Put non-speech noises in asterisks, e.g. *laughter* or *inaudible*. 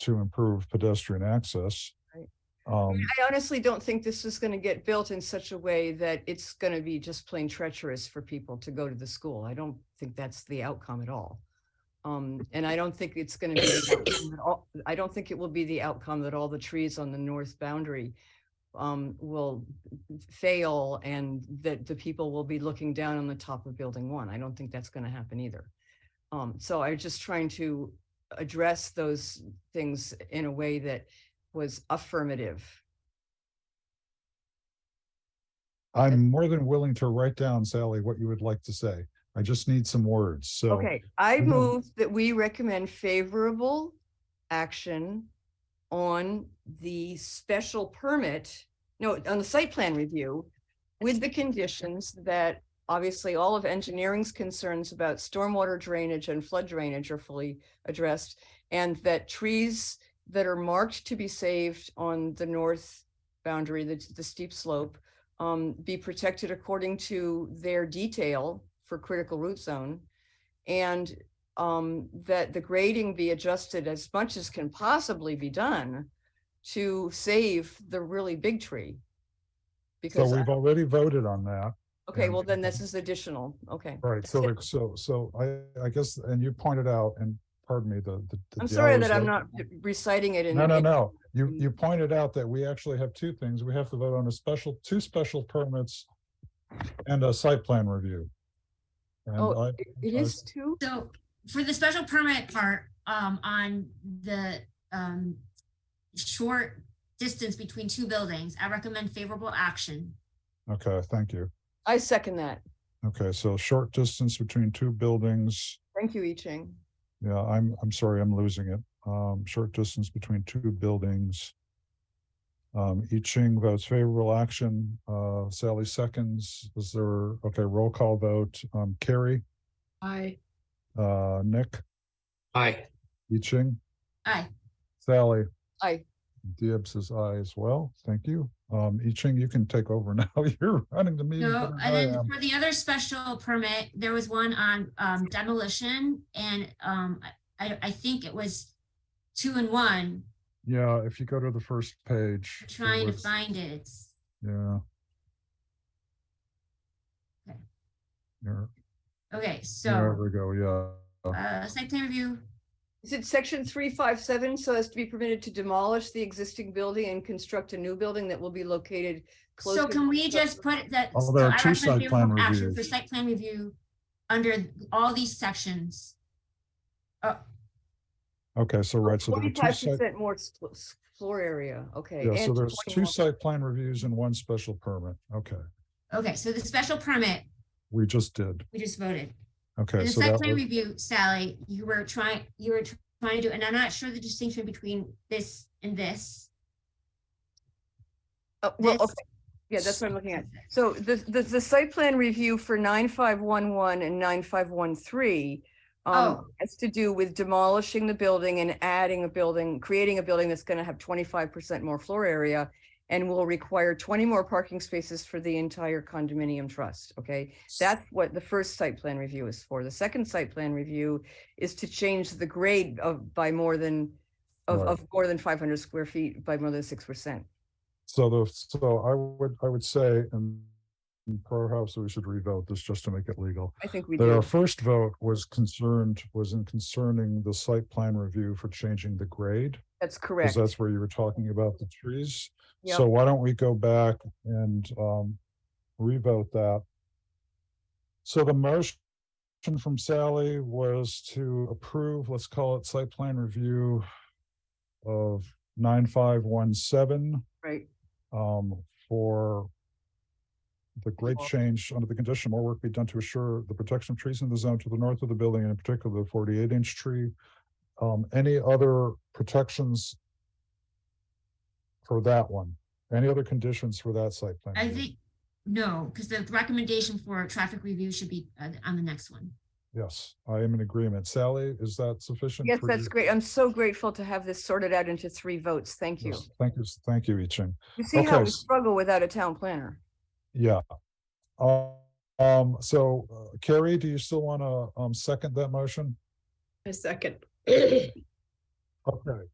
to improve pedestrian access. Right. Um, I honestly don't think this is gonna get built in such a way that it's gonna be just plain treacherous for people to go to the school. I don't think that's the outcome at all. Um, and I don't think it's gonna be, the outcome that all- I don't think it will be the outcome that all the trees on the north boundary um, will fail and that the people will be looking down on the top of building one. I don't think that's gonna happen either. Um, so I'm just trying to address those things in a way that was affirmative. I'm more than willing to write down, Sally, what you would like to say. I just need some words, so. Okay, I we don't- move that we recommend favorable action on the special permit, no, on the site plan review with the conditions that obviously all of engineering's concerns about stormwater drainage and flood drainage are fully addressed and that trees that are marked to be saved on the north boundary, the, the steep slope, um, be protected according to their detail for critical root zone. And um, that the grading be adjusted as much as can possibly be done to save the really big tree. So Because, uh I- we've already voted on that, okay, well, then and- this is additional, okay. right? So, like, so, so I, I guess, and you pointed out, and pardon me, the, the. the I'm sorry yellows that I'm are- not reciting it in. No, no, in- no. You, in- you pointed out that we actually have two things. We have to vote on a special, two special permits and a site plan review. And Oh, I, it- It I- is two? So for the special permit part, um, on the, um, short distance between two buildings, I recommend favorable action. okay, thank you. I second that. Okay, so short distance between two buildings. Thank you, I Ching. Yeah, I'm, I'm sorry, I'm losing it. Um, short distance between two buildings. Um, I Ching votes favorable action, uh, Sally seconds. Is there, okay, roll call vote, um, Carrie, Aye. uh, Nick, Aye. I Ching, Aye, Sally. Aye. Dibbs is aye as well. Thank you. Um, I Ching, you can take over *laughs* now. You're running the meeting. so, better than and Mm, I then am. for the other special permit, there was one on, um, demolition and, um, I, I think it was two and one, Yeah, if you go to the first page. I'm it trying to was- find it. Yeah. Okay. There, Okay, there so, we go, yeah. uh, site plan review, Is it section three five seven so as to be permitted to demolish the existing building and construct a new building that will be located closer? So can we just put it that? Oh, so there are I two recommend site favorable plan action reviews. For site plan review, under all these sections. Okay, so right, so there are two Twenty-five site, percent more s- s- floor area, okay. yeah, so and there's 20 two more- site plan reviews and one special permit. Okay, Okay, so the special permit, we just did. we just voted. Okay, And the so site that plan was, review, Sally, you were trying, you were trying to do, and I'm not sure the distinction between this and this. Oh, Well, this- okay, yeah, that's what I'm looking at. So the, the, the site plan review for nine five one one and nine five one three um, Oh. has to do with demolishing the building and adding a building, creating a building that's gonna have twenty-five percent more floor area and will require twenty more parking spaces for the entire condominium trust, okay? That's what the first site plan review is for. The second site plan review is to change the grade of, by more than, of, Right. of more than five hundred square feet by more than six percent. so the, so I would, I would say, and perhaps we should revote this just to make it legal. I think we But uh, our do. first vote was concerned, was in concerning the site plan review for changing the grade. That's Because correct. that's where you were talking about the trees. Yep. So why don't we go back and um revote that? So the motion from Sally was to approve, let's call it site plan review of nine five one seven Right, um for the great Well- change under the condition more work be done to assure the protection of trees in the zone to the north of the building and in particular the forty-eight inch tree. Um, any other protections for that one? Any other conditions for that site plan? I review? think, no, because the recommendation for traffic review should be uh, on the next one. Yes, I am in agreement. Sally, is that sufficient? yes, for that's you? great. I'm so grateful to have this sorted out into three votes. Thank you. Yes, Thank you, thank you, Iching. You see how Okay. we struggle without a town planner? Yeah. Um, Um, so uh, Carrie, do you still want to um second that motion? I second. Okay,